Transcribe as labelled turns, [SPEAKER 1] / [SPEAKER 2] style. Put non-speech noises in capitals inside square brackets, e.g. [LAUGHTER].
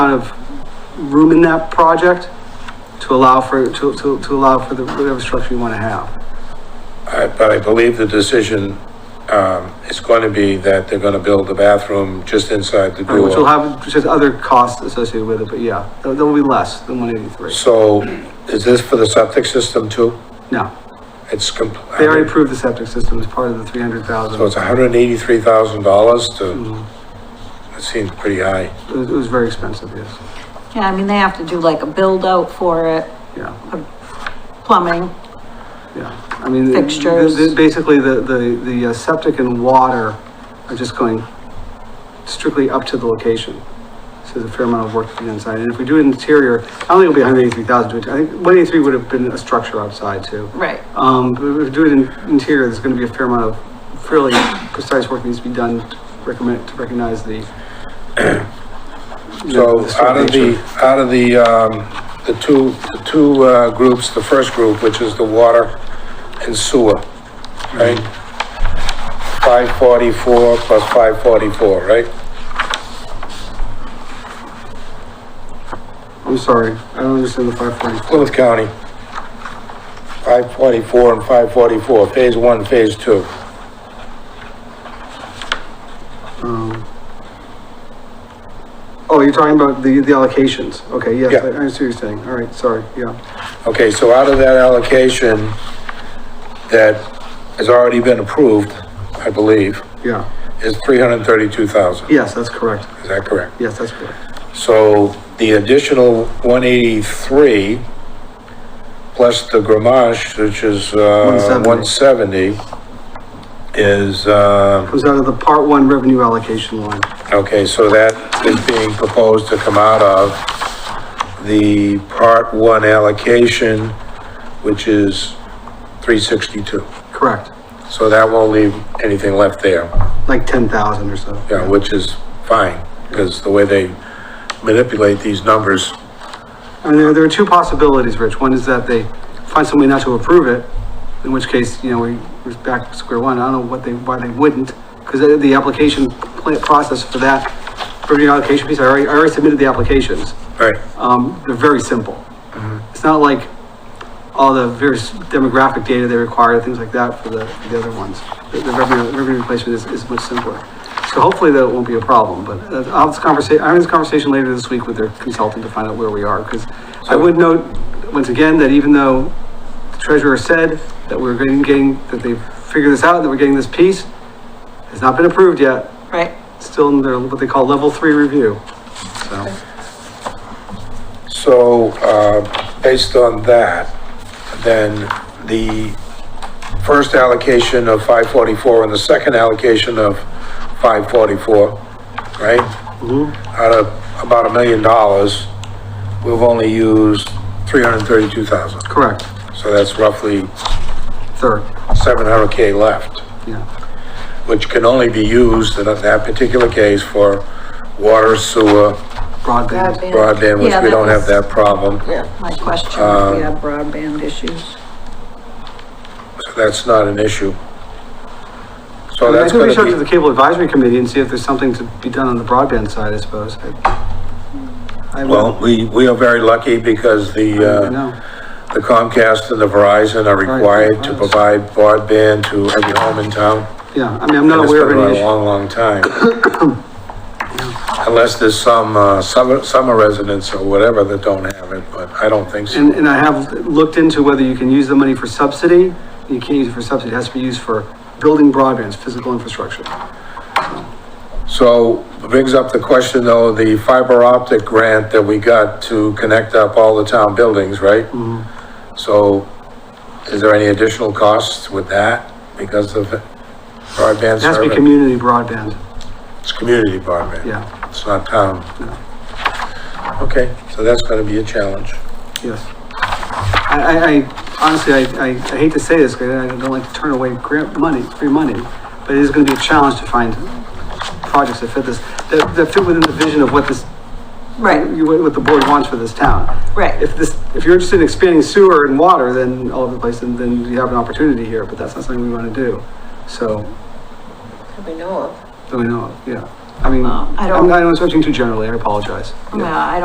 [SPEAKER 1] amount of room in that project to allow for, to, to, to allow for the, whatever structure you want to have.
[SPEAKER 2] I- But I believe the decision um, is going to be that they're going to build a bathroom just inside the
[SPEAKER 1] Which will
[SPEAKER 2] door.
[SPEAKER 1] have, which has other costs associated with it, but yeah, that that will be less than one eighty-three.
[SPEAKER 2] So is this for the septic system too?
[SPEAKER 1] No,
[SPEAKER 2] It's com
[SPEAKER 1] they already approved the septic system as part of the three hundred thousand.
[SPEAKER 2] So it's $183,000 to,
[SPEAKER 1] Hmm.
[SPEAKER 2] that seems pretty high.
[SPEAKER 1] It was, it was very expensive, yes,
[SPEAKER 3] Yeah, I mean, they have to do like a build out for it,
[SPEAKER 1] yeah,
[SPEAKER 3] plumbing.
[SPEAKER 1] yeah. I mean, the- the-
[SPEAKER 3] Fixtures.
[SPEAKER 1] the- basically, the, the, the uh, septic and water are just going strictly up to the location. So there's a fair amount of work to do inside, and if we do it interior, I don't think it'll be hundred eighty-three thousand, I think one eighty-three would have been a structure outside too.
[SPEAKER 3] Right.
[SPEAKER 1] Um, but if we do it in interior, there's gonna be a fair amount of fairly precise work needs to be done to recommend, to recognize the. you know,
[SPEAKER 2] So
[SPEAKER 1] the
[SPEAKER 2] out of the,
[SPEAKER 1] nature.
[SPEAKER 2] out of the, um, the two, the two uh, groups, the first group, which is the water and sewer, right?
[SPEAKER 1] Hmm.
[SPEAKER 2] 544 plus 544, right?
[SPEAKER 1] I'm sorry, I don't understand the five forty.
[SPEAKER 2] Plymouth County, 544 and 544, Phase 1, Phase 2.
[SPEAKER 1] Um, Oh, you're talking about the, the allocations, okay, yes,
[SPEAKER 2] Yeah.
[SPEAKER 1] I I see what you're saying, all right, sorry, yeah.
[SPEAKER 2] Okay, so out of that allocation that has already been approved, I believe,
[SPEAKER 1] Yeah,
[SPEAKER 2] is 332,000.
[SPEAKER 1] yes, that's correct,
[SPEAKER 2] Is that correct?
[SPEAKER 1] yes, that's correct,
[SPEAKER 2] So the additional 183 plus the Gramage, which is uh, 170, is, uh,
[SPEAKER 1] comes out of the part one revenue allocation line,
[SPEAKER 2] okay, so that is being proposed to come out of the Part 1 allocation, which is 362.
[SPEAKER 1] correct,
[SPEAKER 2] So that won't leave anything left there,
[SPEAKER 1] like ten thousand or so.
[SPEAKER 2] yeah, which is fine, because the way they manipulate these numbers,
[SPEAKER 1] And there, there are two possibilities, Rich. One is that they find some way not to approve it, in which case, you know, we, we're back to square one. I don't know what they, why they wouldn't, because the, the application pla- process for that, for the allocation piece, I already, I already submitted the applications.
[SPEAKER 2] right?
[SPEAKER 1] Um, they're very simple. It's not like all the various demographic data they require, things like that for the, for the other ones. The the revenue, revenue replacement is, is much simpler. So hopefully that won't be a problem, but uh, I'll have this conversation, I'm having this conversation later this week with their consultant to find out where we are, because I would note, once again, that even though the treasurer said that we're getting, getting, that they've figured this out, that we're getting this piece, has not been approved yet,
[SPEAKER 3] Right.
[SPEAKER 1] still in their, what they call level three review, so.
[SPEAKER 2] So, uh, based on that, then the first allocation of 544 and the second allocation of 544, right? Out of about a million dollars, we've only used 332,000.
[SPEAKER 1] Correct,
[SPEAKER 2] So that's roughly
[SPEAKER 1] third,
[SPEAKER 2] 700K left.
[SPEAKER 1] yeah.
[SPEAKER 2] which can only be used in that particular case for water, sewer,
[SPEAKER 1] broadband.
[SPEAKER 2] broadband, which
[SPEAKER 3] Yeah,
[SPEAKER 2] we
[SPEAKER 3] that
[SPEAKER 2] don't have
[SPEAKER 3] was-
[SPEAKER 2] that problem.
[SPEAKER 3] Yeah, my question, if we have broadband issues.
[SPEAKER 2] So That's not an issue. So
[SPEAKER 1] I
[SPEAKER 2] that's
[SPEAKER 1] think we should go to
[SPEAKER 2] gonna
[SPEAKER 1] the
[SPEAKER 2] be,
[SPEAKER 1] cable advisory committee and see if there's something to be done on the broadband side, I suppose. I- I would-
[SPEAKER 2] well, we, we are very lucky because
[SPEAKER 1] I
[SPEAKER 2] the,
[SPEAKER 1] don't
[SPEAKER 2] uh,
[SPEAKER 1] know.
[SPEAKER 2] the Comcast and the Verizon are required to
[SPEAKER 1] Verizon.
[SPEAKER 2] provide broadband to every home in town.
[SPEAKER 1] Yeah, I mean, I'm
[SPEAKER 2] And
[SPEAKER 1] not
[SPEAKER 2] it's
[SPEAKER 1] aware
[SPEAKER 2] been
[SPEAKER 1] of
[SPEAKER 2] around
[SPEAKER 1] any
[SPEAKER 2] a
[SPEAKER 1] issue.
[SPEAKER 2] long, long
[SPEAKER 1] [COUGHS]
[SPEAKER 2] time. Unless there's some, uh, summer, summer residents or whatever that don't have it, but I don't think so.
[SPEAKER 1] And, and I have looked into whether you can use the money for subsidy. You can't use it for subsidy, it has to be used for building broadband, physical infrastructure.
[SPEAKER 2] So brings up the question though, the fiber optic grant that we got to connect up all the town buildings, right? So is there any additional costs with that because of the broadband
[SPEAKER 1] It has to be
[SPEAKER 2] service?
[SPEAKER 1] community broadband,
[SPEAKER 2] It's community broadband.
[SPEAKER 1] yeah,
[SPEAKER 2] It's not town. Okay, so that's gonna be a challenge.
[SPEAKER 1] yes. I, I, I honestly, I, I I hate to say this, because I don't like to turn away grant money, free money, but it is gonna be a challenge to find projects that fit this, that, that fit within the vision of what this
[SPEAKER 3] Right,
[SPEAKER 1] you, what the board wants for this town.
[SPEAKER 3] Right.
[SPEAKER 1] If this, if you're interested in expanding sewer and water, then all over the place, then, then you have an opportunity here, but that's not something we wanna do. So,
[SPEAKER 4] we know of.
[SPEAKER 1] do we know, yeah, I mean,
[SPEAKER 3] Well, Um, I
[SPEAKER 1] I'm,
[SPEAKER 3] don't-
[SPEAKER 1] I'm switching too generally, I apologize.
[SPEAKER 3] yeah, I